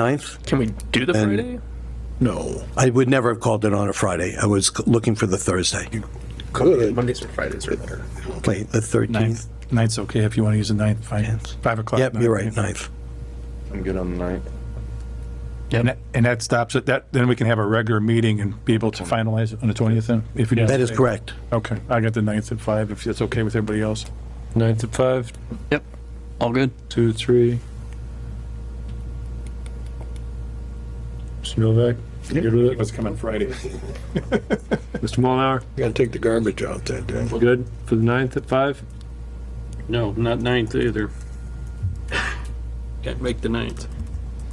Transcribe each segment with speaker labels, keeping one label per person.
Speaker 1: 9th.
Speaker 2: Can we do the
Speaker 1: And-
Speaker 2: Friday?
Speaker 3: No.
Speaker 1: I would never have called it on a Friday. I was looking for the Thursday.
Speaker 3: Good.
Speaker 2: Mondays or Fridays are better.
Speaker 1: Wait, the 13th?
Speaker 4: Ninth, ninth's okay if you want to use the ninth, five, five o'clock.
Speaker 1: Yep, you're right, 9th.
Speaker 4: ninth.
Speaker 5: I'm good on the ninth.
Speaker 4: And that, and that stops it, that, then we can have a regular meeting and be able to finalize it on the twentieth then? if you do-
Speaker 1: That is correct.
Speaker 4: Okay, I got the ninth at five, if that's okay with everybody else.
Speaker 6: Nine to five,
Speaker 2: Yep. All good.
Speaker 6: two, three. Mr. Novak, you good with it?
Speaker 4: Let's come on Friday.
Speaker 6: Mr. Molnar,
Speaker 3: I gotta take the garbage out that day.
Speaker 6: good for the ninth at five?
Speaker 7: No, not ninth either. Can't make the ninth.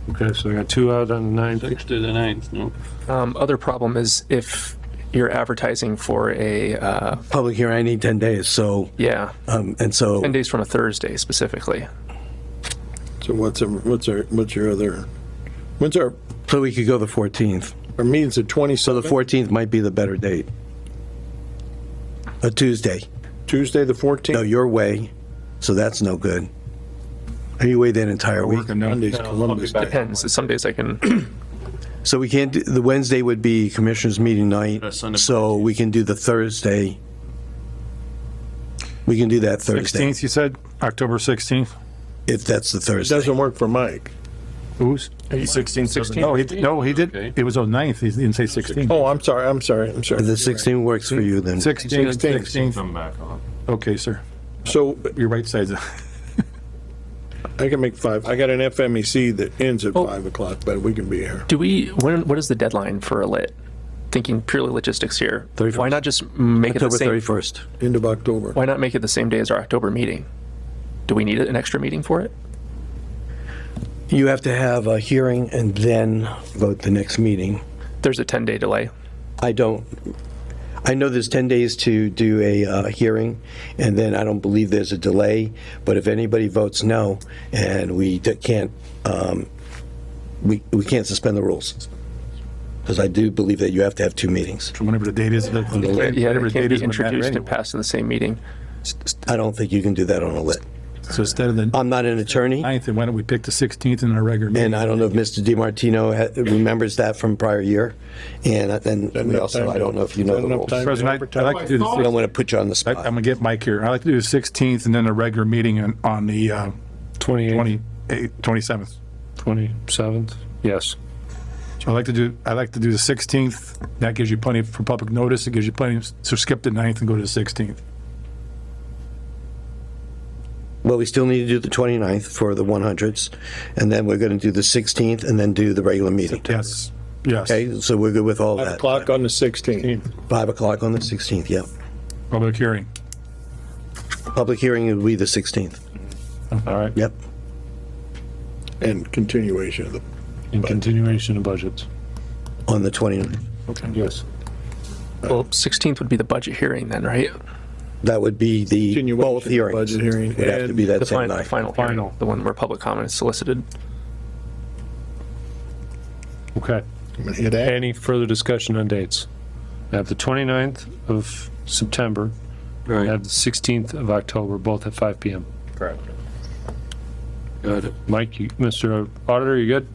Speaker 6: Okay, so I got two out on the ninth.
Speaker 7: Six to the ninth, no.
Speaker 2: Um, other problem is if you're advertising for a, uh,
Speaker 1: Public hearing, I need 10 days, so,
Speaker 2: yeah,
Speaker 1: um, and so
Speaker 2: 10 days from a Thursday specifically.
Speaker 3: So what's, our- what's our, what's your other, when's our,
Speaker 1: so we could go the 14th.
Speaker 3: our meeting's the
Speaker 1: So the
Speaker 3: 27th,
Speaker 1: 14th might be the better date. A Tuesday.
Speaker 3: Tuesday, the
Speaker 1: No,
Speaker 3: 14th?
Speaker 1: your way, so that's no good. Are you away that entire week?
Speaker 4: Working now.
Speaker 3: Monday's Columbus Day.
Speaker 2: Depends. Some days I can,
Speaker 1: So we can't, do- the Wednesday would be commissioners' meeting
Speaker 5: Uh,
Speaker 1: night,
Speaker 5: Sunday.
Speaker 1: so we can do the Thursday. We can do that Thursday,
Speaker 4: Sixteenth, you said, October sixteenth?
Speaker 1: if that's the
Speaker 3: It
Speaker 1: Thursday.
Speaker 3: doesn't work for Mike.
Speaker 4: Who's? Sixteenth, sixteenth? No, Oh, he, no, he did,
Speaker 7: Okay.
Speaker 4: it was on ninth, he didn't say sixteen.
Speaker 3: Oh, I'm sorry, I'm sorry, I'm sorry.
Speaker 1: The 16th works for you then.
Speaker 4: Sixteenth, sixteenth,
Speaker 5: I'm back on.
Speaker 4: okay, sir,
Speaker 3: So
Speaker 4: your right side's,
Speaker 3: I can make five. I got an FMEC that ends
Speaker 4: Oh.
Speaker 3: at 5 o'clock, but we can be here.
Speaker 2: do we, when, what is the deadline for a lit? Thinking purely logistics here.
Speaker 1: 31st.
Speaker 2: Why not just make it the
Speaker 1: October
Speaker 2: same,
Speaker 1: 31st.
Speaker 3: End of October.
Speaker 2: why not make it the same day as our October meeting? Do we need an extra meeting for it?
Speaker 1: You have to have a hearing and then vote the next meeting.
Speaker 2: There's a 10 day delay.
Speaker 1: I don't, I know there's 10 days to do a uh, hearing, and then I don't believe there's a delay, but if anybody votes no, and we d- can't, um, we we can't suspend the rules. Because I do believe that you have to have two meetings.
Speaker 4: whenever the date is.
Speaker 1: Yeah,
Speaker 2: Yeah,
Speaker 4: whatever
Speaker 2: it
Speaker 4: the
Speaker 2: can't
Speaker 4: date is
Speaker 2: be
Speaker 4: when that
Speaker 2: introduced and
Speaker 4: anyway.
Speaker 2: passed in the same meeting.
Speaker 1: I don't think you can do that on a lit.
Speaker 4: So instead of the
Speaker 1: I'm not an attorney,
Speaker 4: ninth, and why don't we pick the sixteenth in our regular meeting?
Speaker 1: and I don't know if Mr. DiMartino ha- remembers that from prior year, and then we also, I don't know if you know the rules. I
Speaker 4: President, I- I'd like to do the
Speaker 1: don't want to put you on the
Speaker 4: I-
Speaker 1: spot.
Speaker 4: I'm gonna get Mike here. I'd like to do the 16th and then a regular meeting on, on the uh,
Speaker 6: Twenty-eighth,
Speaker 4: 28th, 27th.
Speaker 6: twenty-seventh, yes.
Speaker 4: I'd like to do, I'd like to do the 16th. That gives you plenty for public notice. It gives you plenty, so skip the 9th and go to the 16th.
Speaker 1: Well, we still need to do the 29th for the 100s, and then we're going to do the 16th and then do the regular meeting.
Speaker 4: Yes, yes.
Speaker 1: Okay, so we're good with all
Speaker 3: 5
Speaker 1: that.
Speaker 3: o'clock on the 16th.
Speaker 1: 5 o'clock on the 16th, yeah.
Speaker 4: Public hearing.
Speaker 1: Public hearing will be the 16th,
Speaker 6: All right,
Speaker 1: yep.
Speaker 3: And continuation of the,
Speaker 6: in continuation of budgets.
Speaker 1: On the 29th.
Speaker 6: Yes.
Speaker 2: Well, 16th would be the budget hearing then, right?
Speaker 1: That would be the,
Speaker 3: continuation
Speaker 1: both
Speaker 3: of the
Speaker 1: hearings.
Speaker 3: budget hearing.
Speaker 1: Would have to be
Speaker 3: and-
Speaker 1: that
Speaker 2: The
Speaker 1: same
Speaker 2: final, the
Speaker 1: night.
Speaker 2: final hearing,
Speaker 6: Final.
Speaker 2: the one where public comment is solicited.
Speaker 6: Okay.
Speaker 3: I'm gonna hit that.
Speaker 6: Any further discussion on dates? I have the 29th of September, I
Speaker 7: Right,
Speaker 6: have the 16th of October, both at 5 PM.
Speaker 5: Correct.
Speaker 7: got it.
Speaker 6: Mike, you, Mr. Auditor, you good?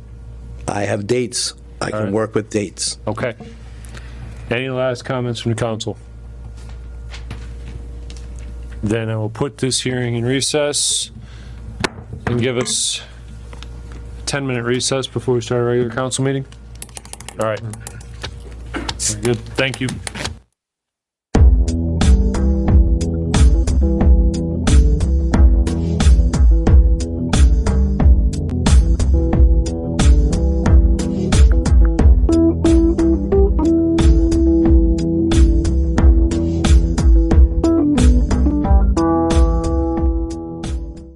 Speaker 1: I have dates. I
Speaker 6: All
Speaker 1: can
Speaker 6: right.
Speaker 1: work with dates.
Speaker 6: Okay. Any last comments from the council? Then I will put this hearing in recess and give us a 10-minute recess before we start our regular council meeting. All right. Very Good, thank you.